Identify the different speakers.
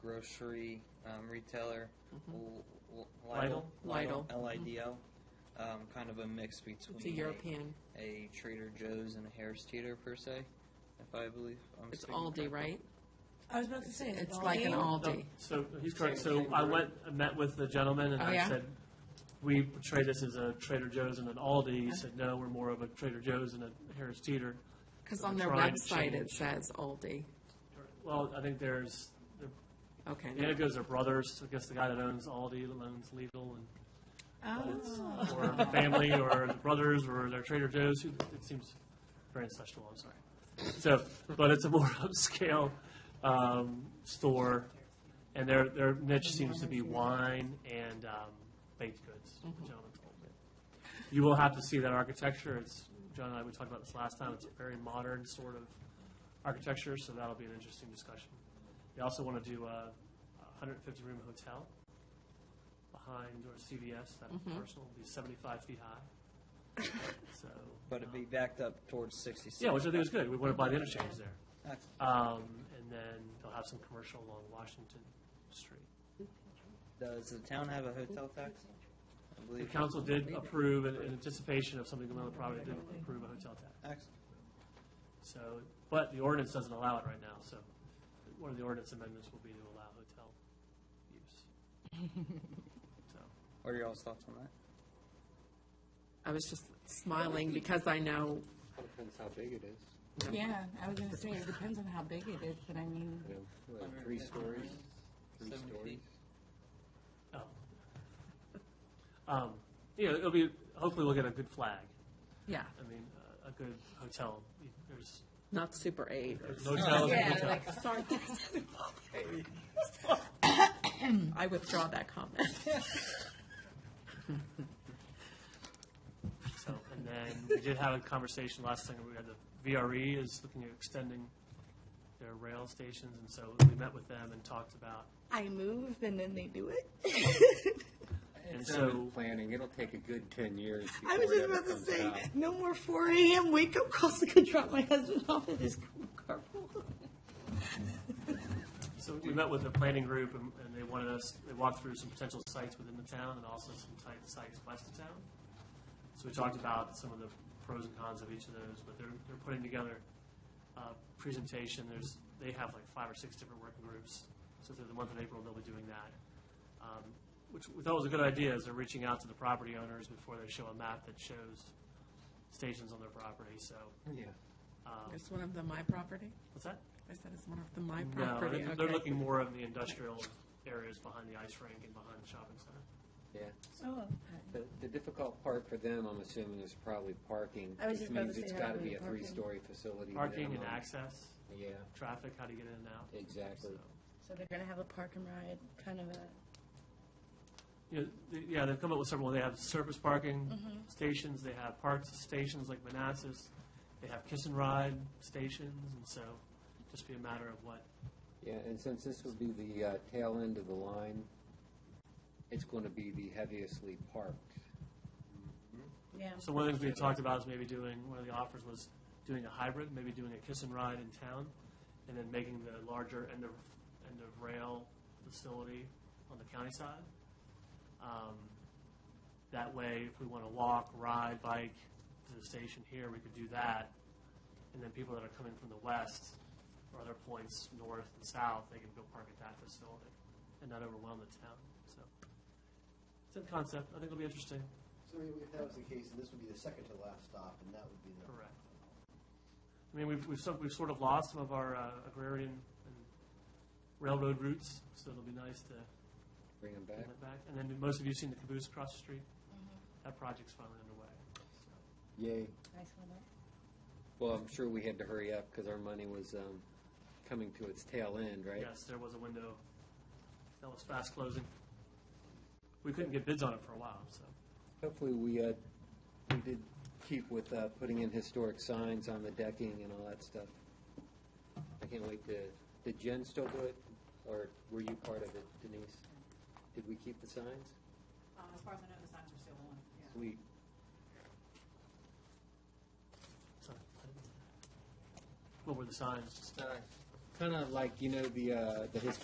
Speaker 1: grocery um, retailer, L- L- Lidl,
Speaker 2: Lidl.
Speaker 1: Lidl,
Speaker 3: Mm-hmm. Lidl. Mm-hmm.
Speaker 1: L-I-D-L, um, kind of a mix between
Speaker 3: It's a European.
Speaker 1: a Trader Joe's and a Harris Teeter per se, if I believe. I'm
Speaker 3: It's
Speaker 1: speaking
Speaker 3: Aldi,
Speaker 1: correctly.
Speaker 3: right?
Speaker 4: I was about to say,
Speaker 3: It's like an Aldi.
Speaker 2: So he's correct.
Speaker 1: Same-
Speaker 2: So
Speaker 1: same
Speaker 2: I
Speaker 1: group.
Speaker 2: went, I met with the gentleman, and
Speaker 3: Oh,
Speaker 2: I
Speaker 3: yeah?
Speaker 2: said, "We portray this as a Trader Joe's and an Aldi." He said, "No, we're more of a Trader Joe's and a Harris Teeter."
Speaker 3: Because
Speaker 2: So
Speaker 3: on
Speaker 2: they
Speaker 3: their
Speaker 2: tried to
Speaker 3: website it
Speaker 2: change.
Speaker 3: says Aldi.
Speaker 2: Well, I think there's they're-
Speaker 3: Okay.
Speaker 2: the Anagos are brothers. I guess the guy that owns Aldi owns Lidl, and
Speaker 4: Oh.
Speaker 2: or the family, or the brothers, or their Trader Joe's. Who it seems very incestual. I'm sorry. So, but it's a more upscale um, store, and their their niche seems to be wine and um, baked goods. The gentleman told me. You will have to see that architecture. It's John and I we talked about this last time. It's a very modern sort of architecture, so that'll be an interesting discussion. They also want to do a 150 room hotel behind or CVS. That parcel will be 75 feet high. so, um,
Speaker 1: But it'd be backed up towards 66.
Speaker 2: yeah, which I think is good. We want to buy the interchange there.
Speaker 1: That's-
Speaker 2: Um, and then they'll have some commercial along Washington Street.
Speaker 1: Does the town have a hotel tax? I
Speaker 2: The
Speaker 1: believe.
Speaker 2: council did approve, in in anticipation of something going on the property, did approve a hotel tax.
Speaker 1: Excellent.
Speaker 2: So, but the ordinance doesn't allow it right now, so one of the ordinance amendments will be to allow hotel use. So,
Speaker 1: What are y'all's thoughts on that?
Speaker 3: I was just smiling because I know,
Speaker 5: Depends how big it is.
Speaker 4: Yeah, I was gonna say, it depends on how big it is, but I mean,
Speaker 5: You know, like three stories, three
Speaker 1: 70
Speaker 5: stories.
Speaker 1: feet.
Speaker 2: oh. Um, you know, it'll be, hopefully we'll get a good flag.
Speaker 3: yeah,
Speaker 2: I mean, a- a good hotel. There's,
Speaker 3: not Super 8.
Speaker 2: there's hotel is a
Speaker 4: Yeah,
Speaker 2: hotel.
Speaker 3: Like, sorry. I withdraw that comment.
Speaker 2: So, and then we did have a conversation last time, we had the VRE is looking at extending their rail stations, and so we met with them and talked about,
Speaker 4: I move and then they do it.
Speaker 2: and
Speaker 5: It's not
Speaker 2: so.
Speaker 5: in planning, it'll take a good ten years
Speaker 4: I was
Speaker 5: before
Speaker 4: just
Speaker 5: it ever
Speaker 4: about to
Speaker 5: comes
Speaker 4: say,
Speaker 5: out.
Speaker 4: no more four AM wake up calls to go drop my husband off at his carpool.
Speaker 2: So we met with the planning group, and, and they wanted us, they walked through some potential sites within the town and also some tight sites west of town. So we talked about some of the pros and cons of each of those, but they're, they're putting together a presentation, there's, they have like five or six different working groups. So through the month of April, they'll be doing that. Um, Which we thought was a good idea, is they're reaching out to the property owners before they show a map that shows stations on their property, so,
Speaker 5: Yeah.
Speaker 2: um,
Speaker 3: Is one of them my property?
Speaker 2: what's that?
Speaker 3: I said it's one of the my
Speaker 2: No,
Speaker 3: property.
Speaker 2: they're- they're
Speaker 3: okay.
Speaker 2: looking more in the industrial areas behind the ice rink and behind the shopping center.
Speaker 5: Yeah.
Speaker 4: Oh,
Speaker 5: The, the difficult part for them, I'm assuming, is probably parking,
Speaker 4: I was
Speaker 5: which
Speaker 4: just about
Speaker 5: means
Speaker 4: to
Speaker 5: it's
Speaker 4: say that
Speaker 5: gotta
Speaker 4: would
Speaker 5: be
Speaker 4: be
Speaker 5: a
Speaker 4: parking.
Speaker 5: three-story facility.
Speaker 2: Parking and
Speaker 5: minimum.
Speaker 2: access,
Speaker 5: Yeah,
Speaker 2: traffic, how to get in and out.
Speaker 5: exactly.
Speaker 2: So-
Speaker 4: So they're gonna have a park and ride, kind of a.
Speaker 2: Yeah, th- yeah, they've come up with several, they have surface parking
Speaker 3: Mm-hmm.
Speaker 2: stations, they have parks stations like Manassas, they have kiss and ride stations, and so just be a matter of what,
Speaker 5: Yeah, and since this would be the uh, tail end of the line, it's going to be the heaviestly parked.
Speaker 4: Yeah.
Speaker 2: so one of the things we had talked about is maybe doing, one of the offers was doing a hybrid, maybe doing a kiss and ride in town, and then making the larger end of, end of rail facility on the county side. Um, That way, if we want to walk, ride, bike to the station here, we could do that. And then people that are coming from the west or other points, north and south, they can go park at that facility and not overwhelm the town, so. It's a concept, I think it'll be interesting.
Speaker 6: So I mean, if that was the case, then this would be the second to last stop, and that would be the.
Speaker 2: Correct. I mean, we've, we've, sort- we've sort of lost some of our uh, agrarian and railroad routes, so it'll be nice to
Speaker 5: Bring them
Speaker 2: bring
Speaker 5: back.
Speaker 2: that back. And then most of you have seen the caboose across the street. That project's finally underway. so.
Speaker 5: Yay.
Speaker 4: Nice one.
Speaker 5: Well, I'm sure we had to hurry up because our money was um, coming to its tail end, right?
Speaker 2: Yes, there was a window that was fast closing. We couldn't get bids on it for a while, so.
Speaker 5: Hopefully, we, uh, we did keep with uh, putting in historic signs on the decking and all that stuff. I can't wait to, did Jen still do it? Or were you part of it, Denise? Did we keep the signs?
Speaker 7: Um, as far as I know, the signs are still on, yeah.
Speaker 5: We,
Speaker 2: so- What were the signs?
Speaker 5: kind of like, you know, the, uh, the historic